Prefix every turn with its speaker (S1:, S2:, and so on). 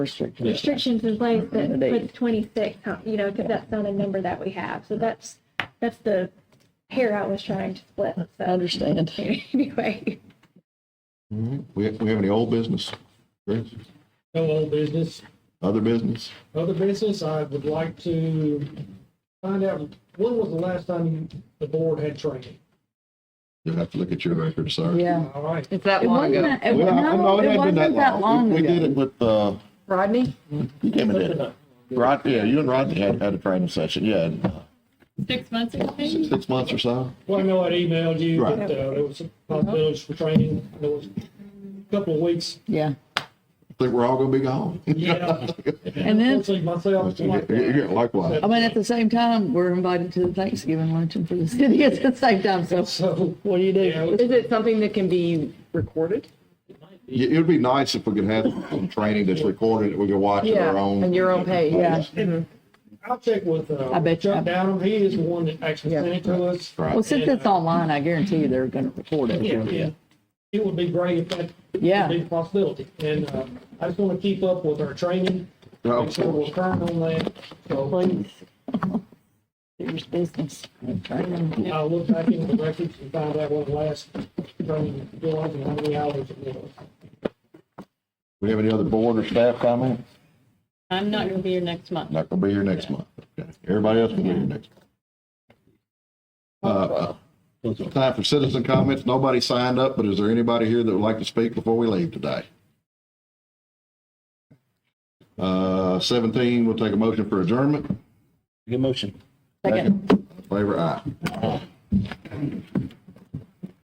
S1: restrictions.
S2: restrictions in place that
S1: They-
S2: puts twenty-six, huh, you know, because that's not a number that we have. So that's, that's the hair I was trying to split,
S1: I
S2: so
S1: understand.
S2: anyway.
S3: Mm-hmm. We, we have any old business, Chris?
S4: No old business.
S3: Other business?
S4: Other business, I would like to find out, when was the last time you- the board had training?
S3: You'll have to look at your record, sir.
S1: Yeah.
S4: All right,
S5: It's that
S1: It
S5: long
S1: wasn't
S5: ago.
S1: that, it wa- no, it wasn't that long
S3: We we did
S1: ago.
S3: it with, uh,
S1: Rodney?
S3: you came and did it. Rod, yeah, you and Rodney had, had a training session, yeah, in, uh,
S5: Six months ago,
S3: six,
S5: maybe?
S3: six months or so.
S4: well, I know I emailed you,
S3: Right.
S4: that uh, there was some possibilities for training, there was a couple of weeks.
S1: Yeah.
S3: I Think we're all gonna be gone.
S4: Yeah.
S1: And then,
S4: Mostly Myself, like,
S3: Yeah, Likewise.
S1: I mean, at the same time, we're invited to the Thanksgiving luncheon for the city at the same time, so
S4: so,
S1: what do you
S4: yeah,
S1: do?
S4: it
S5: Is it something that can be recorded?
S3: Yeah, It would be nice if we could have some training that's recorded, that we could watch at our own.
S5: And your own page.
S1: Yeah.
S4: was- I'll check with uh,
S1: I bet you-
S4: Chuck Downham, he is the one that actually
S1: Yeah.
S4: sent it to us.
S1: Well,
S3: Right.
S1: since it's online, I guarantee you they're gonna record
S4: Yeah,
S1: it.
S4: yeah. It would be great if that
S1: Yeah.
S4: would be a possibility. And uh, I just want to keep up with our training,
S3: Oh,
S4: make sure we're current on that. So
S1: Please. Serious business.
S4: I'll look back into the records and find out what the last training was and how many hours it was.
S3: We have any other board or staff comment?
S5: I'm not gonna be here next month.
S3: Not gonna be here next month. Okay. Everybody else will be here next. month. Uh, uh, Time for citizen comments. Nobody signed up, but is there anybody here that would like to speak before we leave today? Uh, seventeen, we'll take a motion for adjournment.
S6: Good motion.
S1: Second.
S3: Favor aye.